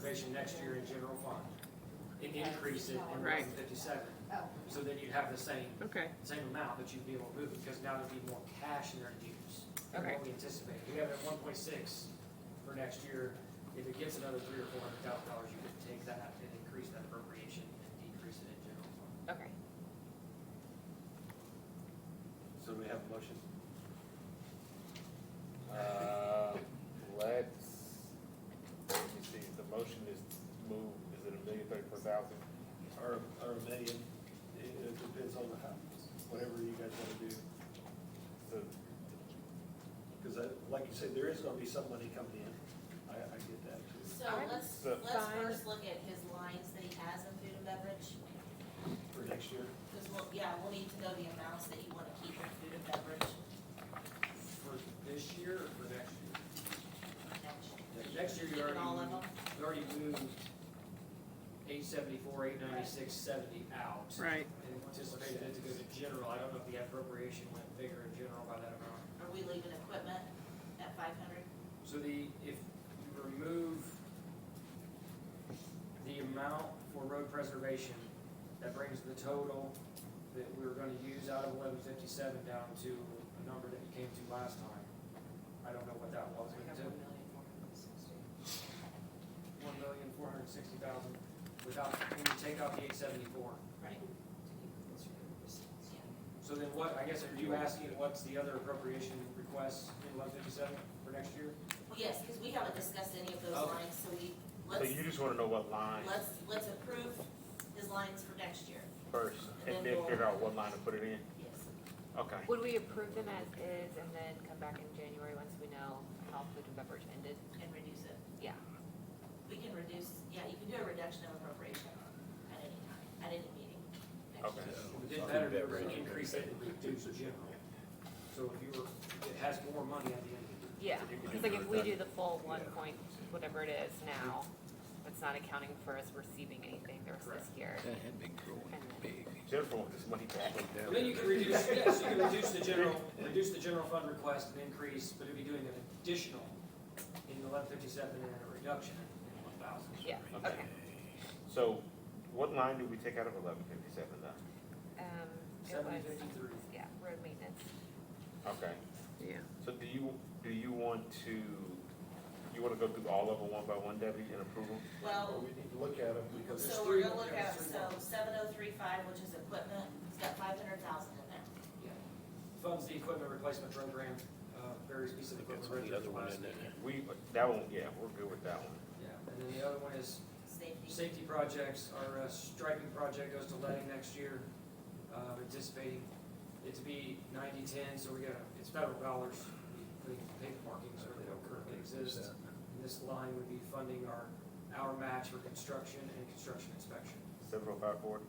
appropriation next year in general fund and increase it in Right. fifty-seven, Oh, so that you'd have the same, Okay, same amount, but you'd be able to move it, because now there'd be more cash in there to use. than Okay. What we anticipate, we have it at one point six for next year, if it gets another three or four hundred thousand dollars, you could take that and increase that appropriation and decrease it in general fund. okay. So do we have a motion? Uh, let's, let me see, the motion is move, is it a million thirty-four thousand? or, or a million, it, it depends on the house, whatever you guys wanna do. So, Cause I, like you said, there is gonna be some money coming in, I, I get that too. So I'm let's, so- let's Fine. first look at his lines that he has in food and beverage, For next year, because we'll, yeah, we'll need to know the amounts that you wanna keep in food and beverage For this year or for next year? next year. Next year, you Keeping already. all of E. them, We already moved eight seventy-four, eight ninety-six, seventy out. Right. And anticipated it to go to general, I don't know if the appropriation went bigger in general by that amount. are we leaving equipment at five hundred? So the, if you remove the amount for road preservation, that brings the total that we were gonna use out of eleven fifty-seven down to a number that you came to last time. I don't know what that was, but it- one million, four hundred and sixty thousand, without, when you take out the eight seventy-four. Right. So then what, I guess, are you asking what's the other appropriation request in eleven fifty-seven for next year? Well, yes, because we haven't discussed any of those Okay. lines, so we, so let's, you just wanna know what line let's, let's approve his lines for next year, first, and then figure out what line to put it in? yes. Okay, Would we approve them as is and then come back in January once we know how food and beverage ended? And reduce it. Yeah. We can reduce, yeah, you can do a reduction of appropriation at any time, at any meeting next Okay. year. We did better to increase it and reduce the general. So if you were, it has more money at the end of the year. Yeah, because like if we do the full one point, whatever it is now, that's not accounting for us receiving anything the rest of this year. That had been growing big. Jennifer wants this money back. But then you can reduce, yes, you can reduce the general, reduce the general fund request and increase, but it'd be doing an additional in eleven fifty-seven and a reduction in one thousand. Yeah, Okay, okay. so what line did we take out of eleven fifty-seven though? Um, it Seven was, fifty-three. yeah, road maintenance. Okay, Yeah. so do you, do you want to, you wanna go through all of them one by one, Debbie, and approve them? Well, Well, we need to look at them because there's So three we're gonna more, look yeah, at, there's three so seven oh three five, which is equipment, it's got five hundred thousand in there. Yeah. Funds the equipment replacement program, uh, various pieces of equipment. rented last year. We, that one, yeah, we're good with that one. Yeah, and then the other one is Safety, safety projects, our uh, striping project goes to letting next year. Uh, anticipating it to be ninety-ten, so we got, it's federal dollars, we pay markings where they don't currently exist. And this line would be funding our, our match for construction and construction inspection. Seven oh five four?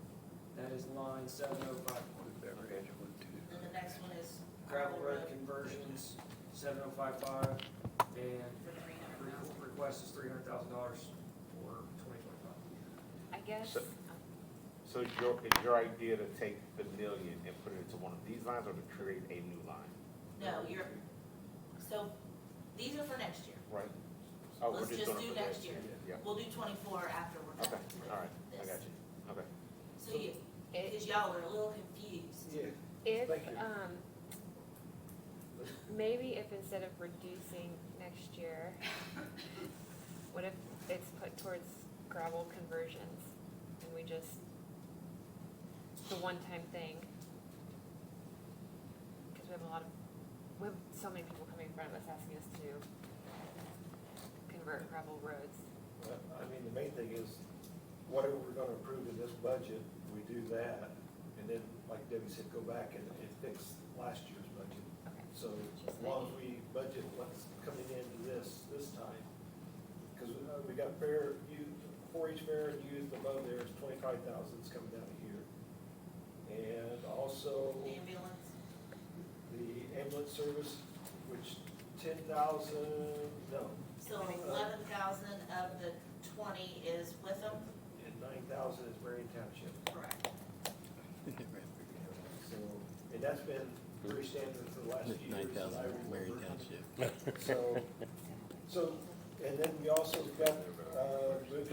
That is line seven oh five one. then the next one is Gravel road conversions, seven oh five five, and for Re- three hundred thousand. Request is three hundred thousand dollars for twenty twenty-five. I guess, um, So- So it's your, it's your idea to take the million and put it into one of these lines or to create a new line, No, you're, so these are for next year. right? Oh, we're Let's just gonna do put next that- year. Yeah, We'll do twenty-four after we're okay, done. with all right, I this. got you, okay. So you, it, because y'all are a little confused. Yeah, If, Thank you. um, maybe if instead of reducing next year, what if it's put towards gravel conversions and we just, it's a one-time thing? Cause we have a lot of, we have so many people coming in front of us asking us to convert gravel roads. Well, I mean, the main thing is, whatever we're gonna approve in this budget, we do that, and then, like Debbie said, go back and, and fix last year's budget. Okay. So as long as we budget what's coming into this, this time, because we got fair, you, four H fair and youth above there is twenty-five thousand's coming down here. And also Ambulance, the ambulance service, which ten thousand, no, so eleven thousand of the twenty is with them? and nine thousand is Marion Township. Correct. So, and that's been pretty standard for the last few years. Nine thousand, that I remember. Marion Township. So, so, and then we also got, uh, moving